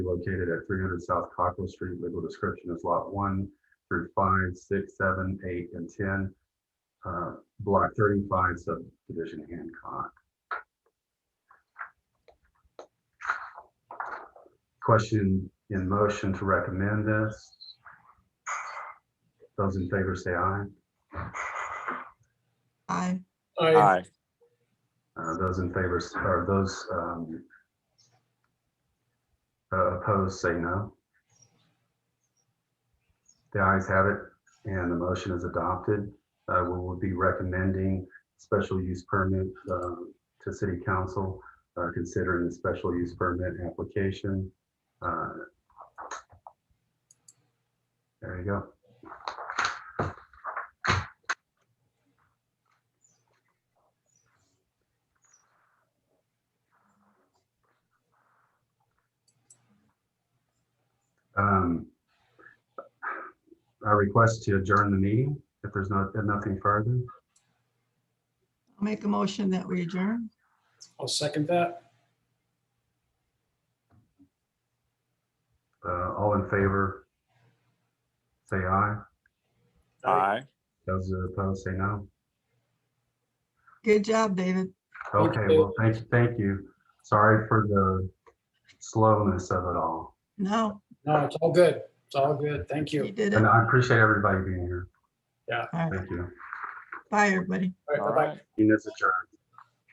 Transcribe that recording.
located at three hundred South Cockrell Street. Legal description is lot one through five, six, seven, eight, and ten. uh, Block thirty-five subdivision Hancock. Question in motion to recommend this. Those in favor say aye. Aye. Aye. Aye. Uh, Those in favor, s- or those um, uh, opposed, say no. The ayes have it, and the motion is adopted. Uh, We will be recommending special use permit uh, to city council, uh, considering the special use permit application. Uh, There you go. Um, I request to adjourn the meeting if there's not, if nothing further. I'll make a motion that we adjourn. I'll second that. Uh, All in favor? Say aye. Aye. Those opposed, say no. Good job, David. Thank you, Okay, Dave. well, thank, you, thank you. Sorry for the slowness of it all. No, No, it's all good. It's all good. Thank you. you did it. And I appreciate everybody being here. Yeah. All right. Thank you. Bye, everybody. All right, All bye-bye. right. Meeting is adjourned.